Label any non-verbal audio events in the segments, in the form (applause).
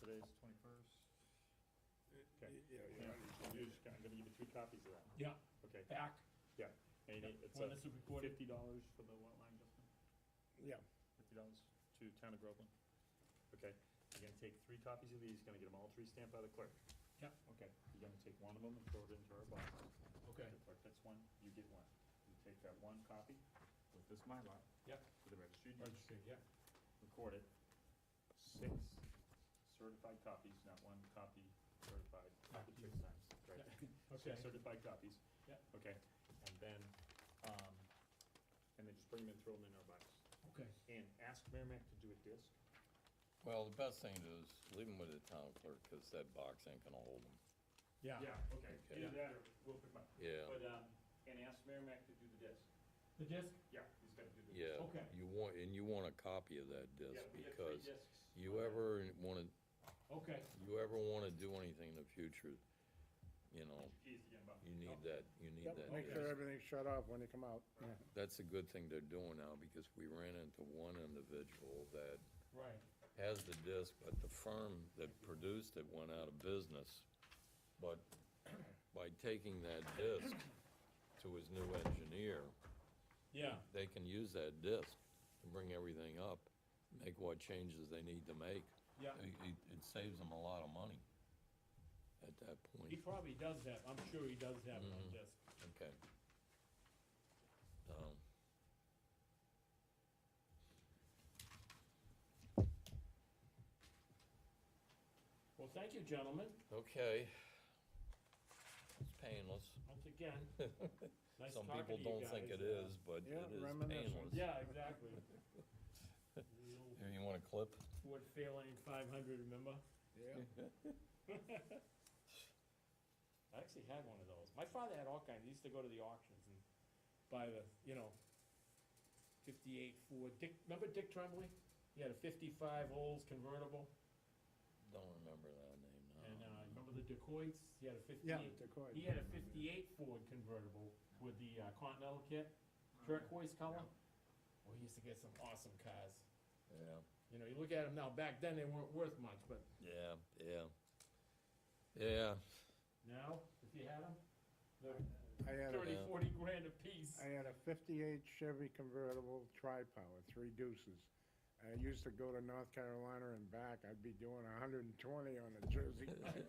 today's twenty-first. Okay. Yeah, Oh, Yeah, you're just gonna, I'm gonna give you two copies of that, Yeah, okay? back, Yeah, and it- it's when a this is recorded. fifty dollars for the lot line adjustment, yeah, fifty dollars to town of Groveland. Okay, you're gonna take three copies of these, gonna get them all three stamped by the clerk. Yep. Okay, you're gonna take one of them and throw it into our box. Okay. The clerk gets one, you get one. You take that one copy with this Mylar. Yep. To the registry, of deeds, Registry, yeah. record it, six certified copies, not one copy certified, copied six times, right? (laughs) Okay, Six certified copies. Yep. Okay, and then, um, and then just bring them and throw them in our box. okay, And ask Merrimack to do a disc. Well, the best thing to do is leave them with the town clerk, cause that box ain't gonna hold them. yeah. okay, Okay. do that, or we'll pick them up. Yeah, But, um, and ask Merrimack to do the disc. The disc, Yeah, he's gotta do the disc. yeah. Okay. You want, and you want a copy of that Yeah, disc, we get three because discs. you ever wanna, okay, you ever wanna do anything in the future, you know, Keys again, Bob. Oh, you need that, you need Yep, that make disc. sure everything's shut off when you come out, yeah. That's a good thing they're doing now, because we ran into one individual that right, has the disc, but the firm that produced it went out of business. But (clears throat) by taking that disc to his new engineer, yeah, they can use that disc to bring everything up, make what changes they need to make. yeah. It, it- it saves them a lot of money at that He point, probably does have, I'm sure he does have it on Mhm. disc. okay. Um, Well, thank you, gentlemen, okay. It's painless. once again. Nice Some talking people to you don't guys. think it is, but Yeah, it is reminiscent. painless. Yeah, (laughs) exactly. Little Here, you want a clip? Ford Fairlane five hundred, remember? Yeah. I actually had one of those. My father had all kinds. He used to go to the auctions and buy the, you know, fifty-eight Ford. Dick, remember Dick Tremblay? He had a fifty-five Olds convertible, (laughs) Don't remember that name, no. and uh, remember the Dacoits? He had a Yeah, fifty-eight. Decoy. He had a fifty-eight Ford convertible with the uh, Continental kit, turquoise color. Well, he used to get some awesome cars. Yeah, You know, you look at them now. Back then, they weren't worth much, but yeah, yeah. Yeah, now, if you had them, they're I had, a- uh, thirty, forty grand a piece. I had a fifty-eight Chevy convertible tri-power, three deuces. I used to go to North Carolina and back, I'd be doing hundred and twenty on a (laughs) Jersey. ride.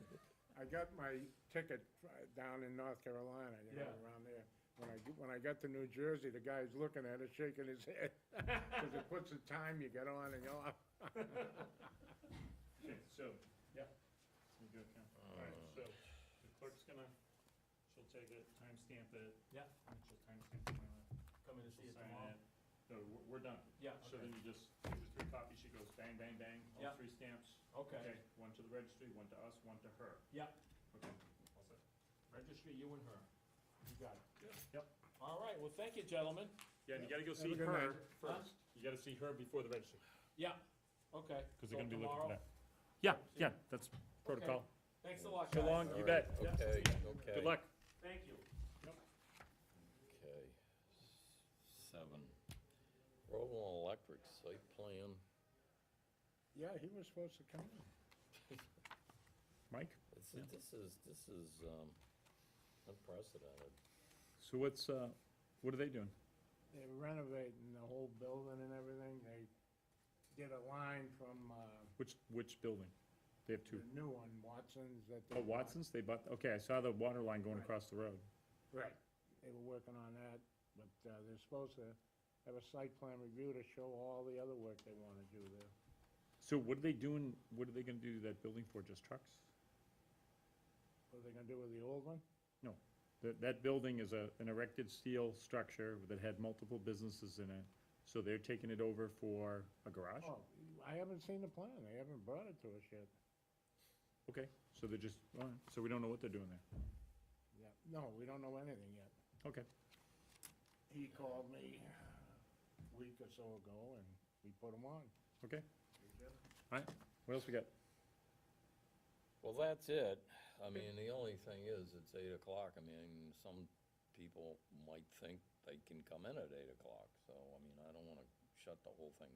I got my ticket uh, down in North Carolina, you know, Yeah. around there. When I, when I got to New Jersey, the guy's looking at it, shaking his head, because it puts the time you get on and off. Okay, so. Yeah. You go, Ken. Alright, Um, so the clerk's gonna, she'll take it, timestamp it. Yeah. And she'll timestamp it. uh, Coming to she'll sign it. No, we're, we're done. Yeah, So then you just, two or three copies, she goes bang, bang, bang, all Yeah. three stamps. Okay, One to the registry, one to us, one to her. yeah, Okay. All set. registry you and her. You got it. Yep. All right, well, thank you, gentlemen. Yeah, and you gotta go Have a see good her night. first. You gotta see her before the registry, Yeah, okay. cause So they're gonna be looking for tomorrow- that. Yeah, yeah, that's protocol. Thanks a lot, So guys. (laughs) long. You all right, bet. Yeah. okay, okay. Good luck. Thank you. Okay, seven. Groveland Electric site plan, Yeah, he was supposed to come in. Mike? this is, this is, this is, um, unprecedented. So what's, uh, what are they doing? They're renovating the whole building and everything. They did a line from, uh, Which, which building? They have the new one, Watson's that. they Oh, Watson's, they bought, okay, I saw the water line going Right. across the road. bought. Right. They were working on that, but, uh, they're supposed to have a site plan review to show all the other work they wanna do there. So what are they doing, what are they gonna do to that building for, just trucks? What are they gonna do with the old one? No, that, that building is a, an erected steel structure that had multiple businesses in it, so they're taking it over for a garage? Oh, I haven't seen the plan. They haven't brought it to us yet. Okay, so they're just, all right, so we don't know what they're doing there, Yeah, no, we don't know anything yet. okay. He called me a week or so ago and we put him on. Okay. All right, what else we got? Well, that's it, I mean, the only thing is, it's eight o'clock, I mean, some people might think they can come in at eight o'clock, so, I mean, I don't wanna shut the whole thing